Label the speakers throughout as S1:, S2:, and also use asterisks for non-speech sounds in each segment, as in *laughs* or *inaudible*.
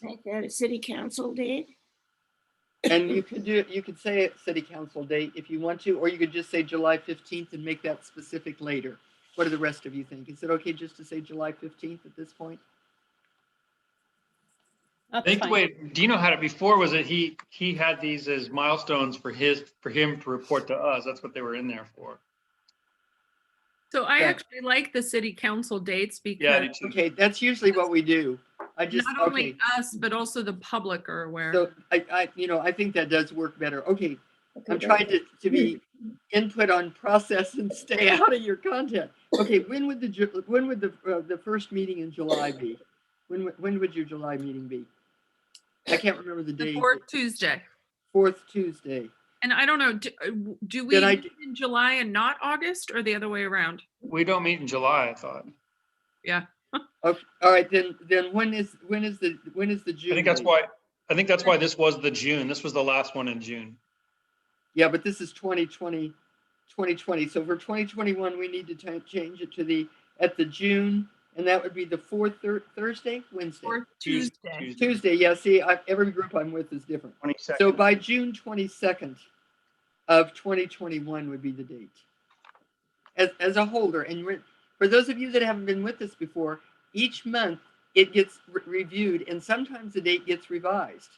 S1: think that a city council did.
S2: And you could do, you could say it city council date if you want to, or you could just say July fifteenth and make that specific later. What do the rest of you think? Is it okay just to say July fifteenth at this point?
S3: That's
S4: I think the
S3: fine.
S4: way Dino had it before was that he, he had these as milestones for his, for him to report to us. That's what they were in there for.
S5: So I
S2: Yeah.
S5: actually like the city council dates
S4: Yeah, I
S5: because
S4: do too.
S2: Okay, that's usually what we do. I just,
S5: not
S2: okay.
S5: only us, but also the public are aware.
S2: So I, I, you know, I think that does work better. Okay,
S1: Okay,
S2: I'm trying to, to be input on process and
S5: *laughs*
S2: stay out of your content. Okay, when would the, Ju- when would the, uh, the first meeting in July be? When, would- when would your July meeting be? I can't remember the
S5: The
S2: date.
S5: fourth Tuesday.
S2: Fourth Tuesday.
S5: And I don't know, do, uh, w- do we
S2: Then I
S5: meet in July and not August or the other way around?
S4: We don't meet in July, I thought.
S2: Okay, Oh, all right, then, then when is, when is the, when is the
S4: I
S2: June?
S4: think that's
S2: meeting?
S4: why, I think that's why this was the June. This was the last one in June.
S2: Yeah, but this is 2020, 2020. So for 2021, we need to ti- change it to the, at the June, and that would be the fourth Thur- Thursday, Wednesday?
S5: Fourth
S4: Tues-
S5: Tuesday.
S4: Tuesday,
S2: Tuesday, yeah, see, I, every group I'm with is different.
S4: 22nd.
S2: So by June 22nd of 2021 would be the date. As, as a holder, and re- for those of you that haven't been with us before, each month it gets re- reviewed and sometimes the date gets revised.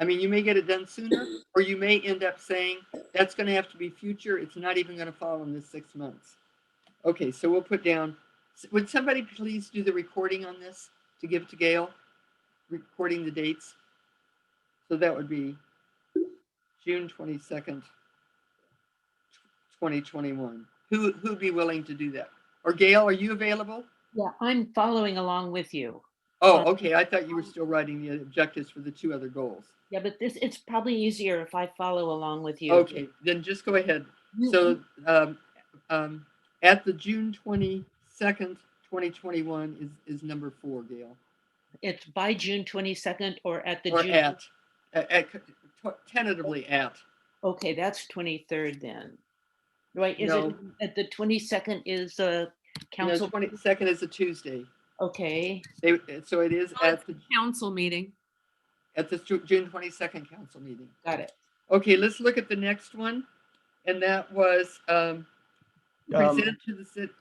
S2: I mean, you may get it done sooner, or you may end up saying, that's gonna have to be future, it's not even gonna fall in this six months. Okay, so we'll put down, s- would somebody please do the recording on this to give to Gail? Recording the dates? So that would be June twenty-second, twenty twenty-one. Who, who'd be willing to do that? Or Gail, are you available?
S3: Yeah, I'm following along with you.
S2: Oh,
S3: Uh,
S2: okay, I thought you were still writing the objectives for the two other goals.
S3: Yeah, but this, it's probably easier if I follow along with you.
S2: Okay, then just go ahead.
S3: Mm-hmm.
S2: So, um, um, at the June twenty-second, twenty twenty-one is, is number four, Gail.
S3: It's by June twenty-second or at the
S2: Or
S3: June.
S2: at, at, at- tentatively at.
S3: Okay, that's twenty-third then. Right, is it,
S2: No.
S3: at the twenty-second is uh
S2: No,
S3: council,
S2: twenty-second is a Tuesday.
S3: okay,
S2: They, so it is
S5: Oh,
S2: at
S5: it's
S2: the,
S5: Council meeting.
S2: at the Ju- June twenty-second council meeting.
S3: got it.
S2: Okay, let's look at the next one. And that was, um,
S6: Um,
S2: present to the city.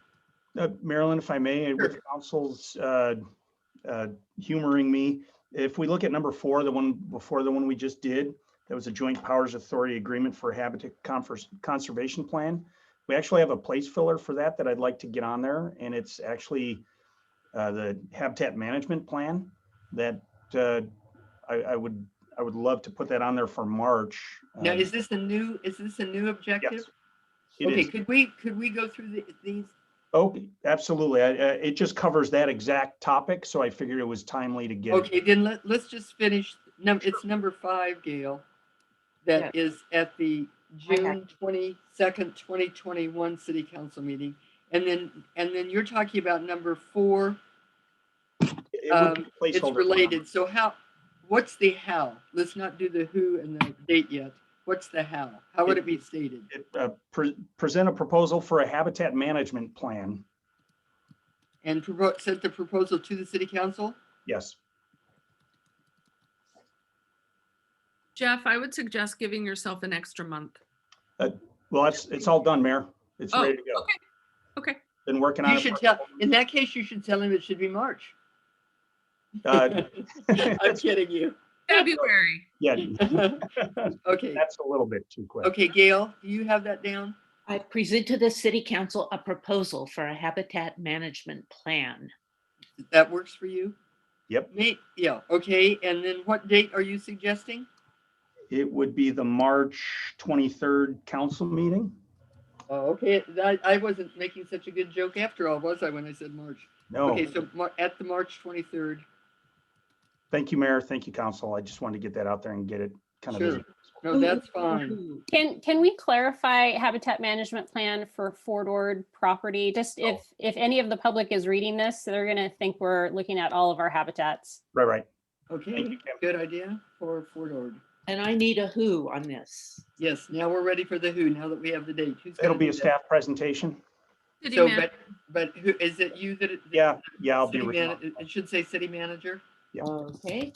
S6: uh, Marilyn, if I may, with council's uh, uh, humoring me, if we look at number four, the one before the one we just did, that was a joint powers authority agreement for habitat Confers- conservation plan. We actually have a place filler for that that I'd like to get on there, and it's actually uh, the habitat management plan that uh, I, I would, I would love to put that on there for March.
S2: Now,
S6: um,
S2: is this a new, is this a new objective?
S6: Yes. It
S2: Okay,
S6: is.
S2: could we, could we go through the- these?
S6: Oh, absolutely. I- I- It just covers that exact topic, so I figured it was timely to get. it.
S2: Okay, then let, let's just finish, num, it's number five, Gail. That is at the
S3: I got
S2: June twenty-second, twenty twenty-one city council meeting. And then, and then you're talking about number four,
S6: It would
S2: Um,
S6: be a
S2: it's
S6: placeholder for
S2: related, so how, what's the how? Let's not do the who and the date yet. What's the how? How would it be stated?
S6: number. It, uh, pre- Present a proposal for a habitat management plan.
S2: And provo- sent the proposal to the city council?
S6: Yes.
S5: Jeff, I would suggest giving yourself an extra month.
S6: Well, it's, it's all done, Mayor. It's
S5: Oh,
S6: ready to go.
S5: okay. Okay.
S6: Been working on
S2: You
S6: it.
S2: should
S6: for-
S2: tell, in that case, you should tell him it should be March.
S6: *laughs* uh,
S2: I'm kidding you. *laughs*
S5: February.
S6: *laughs* Yeah,
S2: Okay,
S6: that's a little bit too quick.
S2: okay, Gail, do you have that down?
S3: I present to the city council a proposal for a habitat management plan.
S2: That works for you?
S6: Yep.
S2: Me, yeah, okay, and then what date are you suggesting?
S6: It would be the March 23rd council meeting.
S2: Oh, okay, I, I wasn't making such a good joke after all, was I, when I said March?
S6: No,
S2: Okay, so Mar- at the March twenty-third,
S6: thank you, Mayor. Thank you, council. I just wanted to get that out there and get it kind of.
S2: Sure.
S6: visible.
S2: no, Oh, that's fine.
S7: Can, can we clarify habitat management plan for Fort Ord property? Just if, if any of the public is reading this, they're going to think we're looking at all of our habitats.
S6: Right, right. Thank
S2: Okay,
S6: you, Kim.
S2: good idea for Fort Ord.
S3: And I need a who on this.
S2: Yes, now we're ready for the who, now that we have the date. Who's gonna
S6: It'll be
S2: do
S6: a
S2: that?
S6: staff presentation.
S5: City
S2: So,
S5: man-
S2: but, but who, is it you that?
S6: Yeah, yeah, I'll be.
S2: City
S6: reading
S2: man-
S6: off.
S2: It it should say city manager.
S6: Yeah.
S3: Okay.